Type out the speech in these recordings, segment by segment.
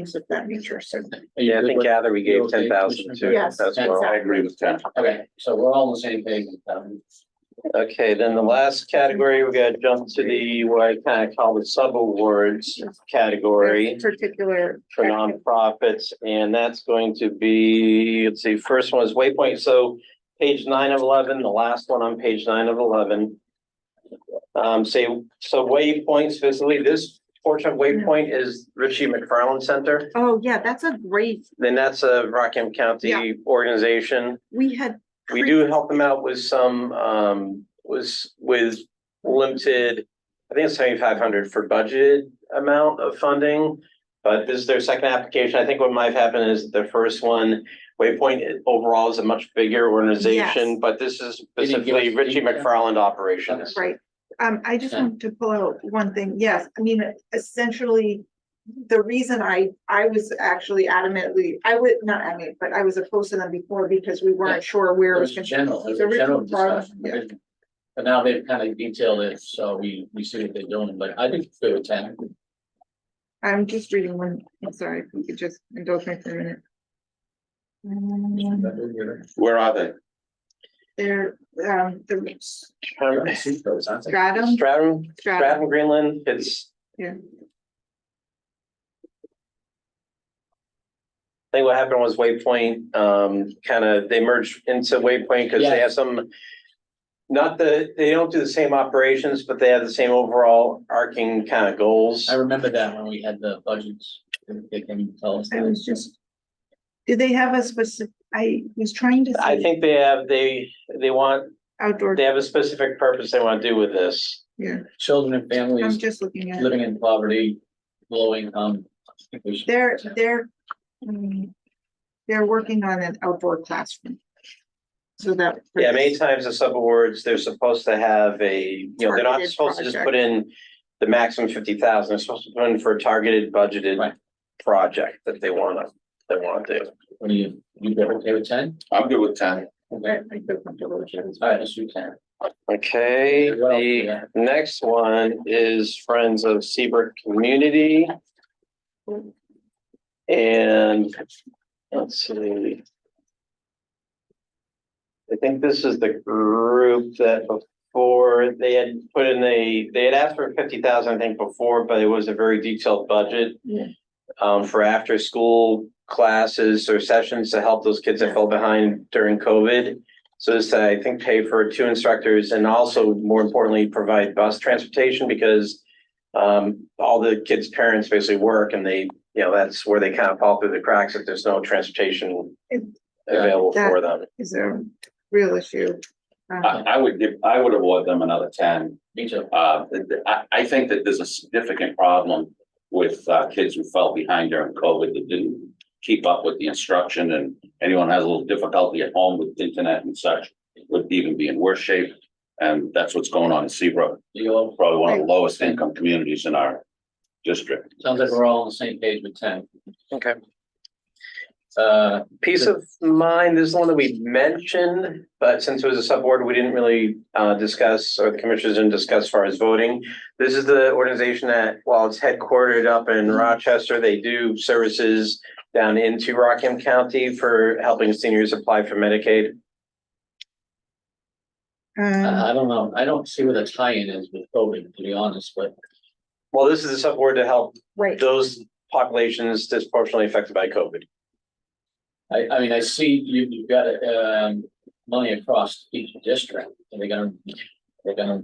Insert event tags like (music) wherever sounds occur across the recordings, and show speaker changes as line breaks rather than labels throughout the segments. things of that nature, so.
Yeah, I think Gather, we gave
Okay,
ten thousand to
Yes,
as well.
exactly.
I agree with Ken.
Okay, so we're all on the same page with them.
Okay, then the last category, we're gonna jump to the, what I kind of call the sub-awards category
Particular.
for nonprofits, and that's going to be, let's see, first one is Waypoint, so page nine of eleven, the last one on page nine of eleven. Um, say, so Waypoint specifically, this portion of Waypoint is Richie McFarland Center,
Oh, yeah, that's a great,
then that's a Rockham
Yeah.
County organization.
we had.
We do help them out with some, um, was with limited, I think it's seventy-five hundred for budgeted amount of funding. But this is their second application. I think what might have happened is the first one, Waypoint overall is a much bigger
Yes.
organization, but this is
They didn't give
specifically
us
Richie
feedback.
McFarland Operations.
Right, um, I just
Yeah.
want to pull out one thing, yes, I mean, essentially, the reason I, I was actually adamantly, I would, not adamant, but I was opposed to them before because we
Yeah.
weren't sure where it
It was
was. gonna-
general, it was
So
a
Richard
general
Farley,
discussion. originally. But now they've kind of detailed it, so we, we see what they're doing, but I think they were ten.
I'm just reading one, I'm sorry, if you could just indulge me for a minute. Um,
Where are they?
There, um, the
Um,
stratum,
Stratum,
stratum,
Stratum Greenland, it's.
Yeah.
I think what happened was Waypoint, um, kind of, they merged into Waypoint because they
Yeah.
have some. Not the, they don't do the same operations, but they have the same overall arcing kind of goals.
I remember that when we had the budgets, they can tell us.
I was just. Did they have a specific, I was trying to.
I
see
think they have, they, they want,
Outdoor,
they have a specific purpose they want to do with this.
yeah,
Children and
I'm
families
just looking at.
living in poverty, low income. I think we should-
They're, they're, mm, they're working on an outdoor classroom. So that.
Yeah, many times the sub awards, they're supposed to have a, you know, they're not
Targeted
supposed to just
project.
put in the maximum fifty thousand, they're supposed to put in for a targeted budgeted
Right.
project that they wanna, they wanna do.
What do you, you get okay with ten?
I'm good with ten.
Okay,
I- I feel comfortable with that.
all right, let's do ten.
Okay,
What else we
the
got?
next one is Friends of Seabrook Community. And let's see. I think this is the group that before they had put in a, they had asked for fifty thousand, I think, before, but it was a very detailed budget.
Yeah.
Um, for after school classes or sessions to help those kids that fell behind during COVID. So this, I think, pay for two instructors and also more importantly, provide bus transportation because um, all the kids' parents basically work and they, you know, that's where they kind of fall through the cracks if there's no transportation available for them.
Is a real issue. Um,
Uh,
I, I would give, I would award them another ten.
Me too.
Uh, th- th- I, I think that there's a significant problem with, uh, kids who fell behind during COVID that didn't keep up with the instruction and anyone has a little difficulty at home with internet and such would even be in worse shape. And that's what's going on in Seabrook,
You all,
probably one of the lowest income communities in our district.
sounds like we're all on the same page with ten.
Okay.
Uh,
Peace of mind, this is one that we mentioned, but since it was a sub-board, we didn't really uh discuss, or the commissioners didn't discuss as far as voting. This is the organization that, while it's headquartered up in Rochester, they do services down into Rockham County for helping seniors apply for Medicaid. uh,
um,
I, I don't know, I don't see where the tie-in is with COVID, to be honest, but
Well, this is a sub-board to help
Right,
those populations disproportionately affected by COVID.
I, I mean, I see you, you've got, um, money across each district, and they're gonna, they're gonna.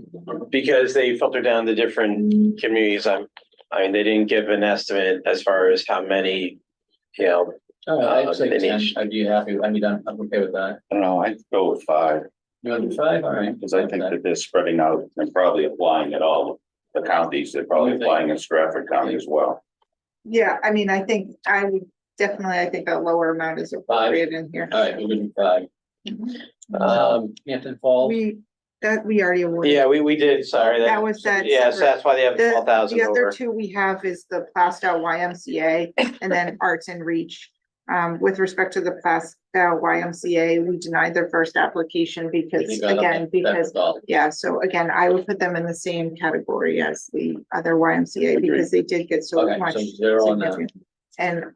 Because they filter down the different communities, I'm, I mean, they didn't give an estimate as far as how many, you know,
All right, I'd say
Uh, they
ten,
need-
I'd be happy, I mean, I'm, I'm okay with that.
I don't know, I'd go with five.
You want to do five, all right?
Because I think that they're spreading out and probably applying at all the counties, they're probably applying in Stratford County as well.
yeah, I mean, I think I would definitely, I think a lower amount is appropriate in here.
All right, we're doing five.
um,
Hampton Falls,
We, that, we already awarded.
yeah, we, we did, sorry.
That was that
Yeah, so
separate-
that's why they have
The-
twelve thousand
The other
over.
two we have is the Plastow YMCA and
(laughs)
then Arts and Reach. Um, with respect to the Plastow YMCA, we denied their first application because,
You got it.
again, because,
that's all.
yeah, so again, I would put them in the same category as the other YMCA because they did get so
Okay,
much.
so zero on that.
significant- And